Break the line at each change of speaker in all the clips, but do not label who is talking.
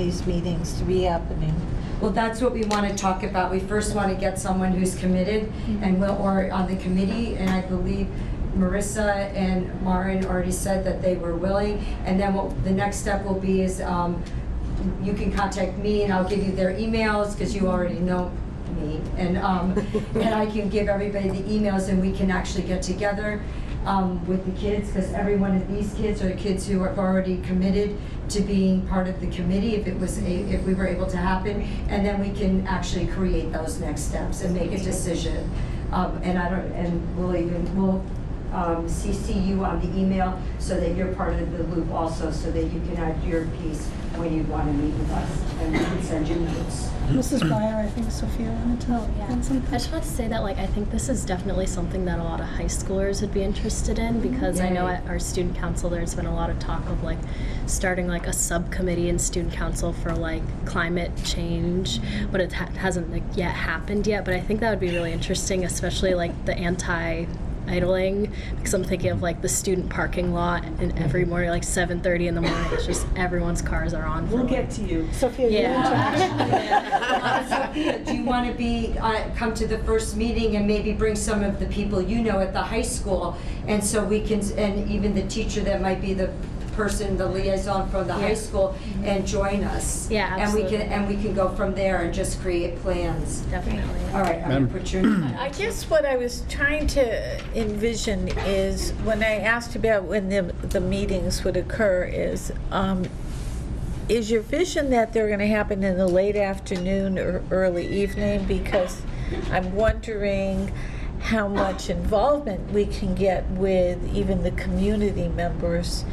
these meetings to be happening.
Well, that's what we want to talk about. We first want to get someone who's committed and will, or on the committee, and I believe Marissa and Maren already said that they were willing. And then what, the next step will be is, um, you can contact me and I'll give you their emails, because you already know me. And, um, and I can give everybody the emails and we can actually get together, um, with the kids, because every one of these kids are kids who have already committed to being part of the committee if it was, a- if we were able to happen. And then we can actually create those next steps and make a decision. Um, and I don't, and we'll even, we'll, um, CC you on the email so that you're part of the loop also, so that you can add your piece when you want to meet with us and we can send you notes.
Mrs. Meyer, I think Sophia wanted to
Oh, yeah.
add
I
something.
just want to say that, like, I think this is definitely something that a lot of high schoolers would be interested in because I know
Yay.
at our student council there's been a lot of talk of like starting like a subcommittee in student council for like climate change, but it ha- hasn't like yet happened yet. But I think that would be really interesting, especially like the anti idling because I'm thinking of like the student parking lot and every morning like 7:30 in the morning it's just everyone's cars are on for,
We'll
like,
get to you.
Sophia, you
Yeah.
want to
Uh, Sophia, do you want to be, uh, come to the first meeting and maybe bring some of the people you know at the high school? And so we can, and even the teacher that might be the person, the liaison from the high
Yeah. Mm-hmm.
school, and join us.
Yeah,
And we
absolutely.
can, and we can go from there and just create plans.
definitely
All right, I'm going
Madam-
to put your,
I guess what I was trying to envision is, when I asked about when the, the meetings would occur, is, um, is your vision that they're going to happen in the late afternoon or early evening? Because I'm wondering how much involvement we can get with even the community members,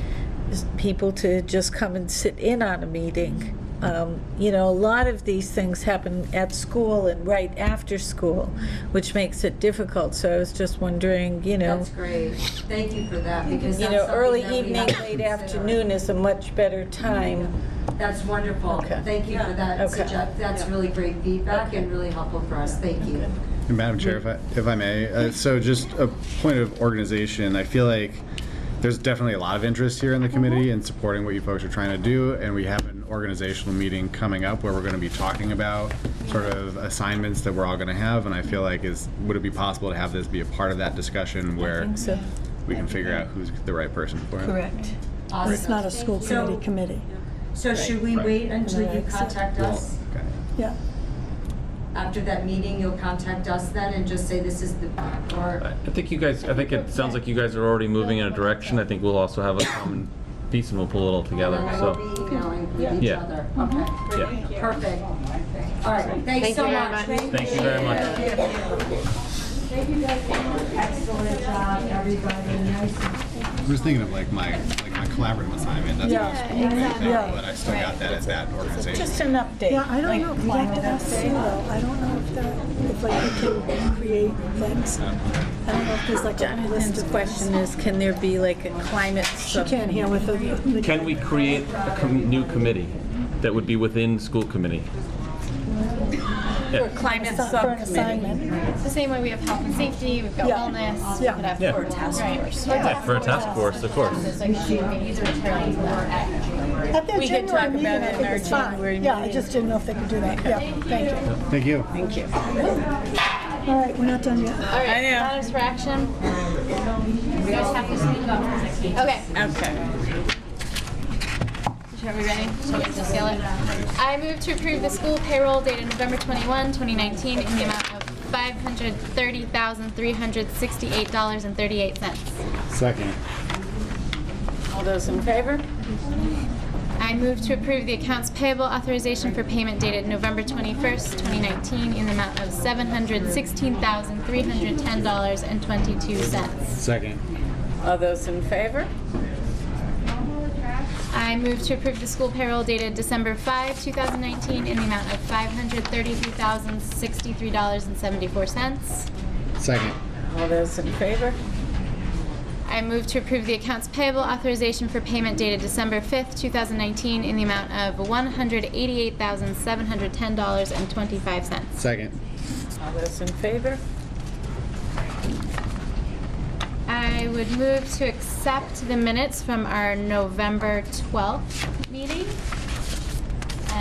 is people to just come and sit in on a meeting. Um, You know, a lot of these things happen at school and right after school, which makes it difficult. So I was just wondering, you know,
that's great. Thank you for that, because that's
you know,
something
early
that we
evening,
have to
late
consider.
afternoon is a much better time.
That's wonderful.
Okay.
Thank you for that.
Okay.
sugge- That's
Yeah.
really great feedback and really helpful for us. Thank you.
Madam Chair, if I, if I may, uh, so just a point of organization, I feel like there's definitely a lot of interest here in the
Mm-hmm.
committee in supporting what you folks are trying to do, and we have an organizational meeting coming up where we're gonna be talking about sort of assignments that we're all gonna have, and I feel like is, would it be possible to have this be a part of that discussion where
So,
we can figure out who's the right person for it?
correct.
Awesome.
It's not a school
So-
committee committee.
So should we
Right.
wait until you
Right.
contact
Well,
us?
okay.
Yeah.
After that meeting, you'll contact us then and just say this is the,
I
or,
I think you guys, I think it sounds like you guys are already moving in a direction. I think we'll also have a common piece and we'll pull it all together,
and we'll
so.
be emailing with each
Yeah.
other.
Mm-hmm.
Okay,
yeah.
perfect. All right, thanks so much.
Thank you very much.
Thank you guys. Excellent job, everybody. Nice.
I'm just thinking of like my, like my collaborative assignment, that's
Yeah.
not a school thing,
Yeah.
but I still got that as that organization.
Just an update.
Yeah, I don't
like-
know, we have to ask Sue though, I don't know if that, if like we can create things. I don't know if there's like a list
Jonathan's
of
question
questions.
is, can there be like a climate
She
sub?
can't hear with the- the.
Can we create a com- new committee that would be within school committee?
Or climate
For an
subcommittee?
assignment.
The same way we have health and safety, we've got
Yeah.
wellness.
Yeah.
We could have
Yeah.
for a task force.
Yeah, for a task force, of course.
So it should be either attorney or advocate.
At their
We could
January
talk
meeting,
about it
I
in
think
our
it's fine.
January
Yeah, I
meeting.
just didn't know if they could do that, yeah, thank you.
Thank you.
Thank you.
All right, we're not done yet.
All
I
right,
know.
matters for action. We guys have to speak about this. Okay.
Okay.
Are we ready? Should we just seal it? I move to approve the school payroll dated November 21, 2019 in the amount of $530,368.38.
Second.
All those in favor?
I move to approve the accounts payable authorization for payment dated November 21st, 2019 in the amount of $716,310.22.
Second.
All those in favor?
I move to approve the school payroll dated December 5, 2019, in the amount of $533,063.74.
Second.
All those in favor?
I move to approve the accounts payable authorization for payment dated December 5, 2019, in the amount of $188,710.25.
Second.
All those in favor?
I would move to accept the minutes from our November 12th meeting.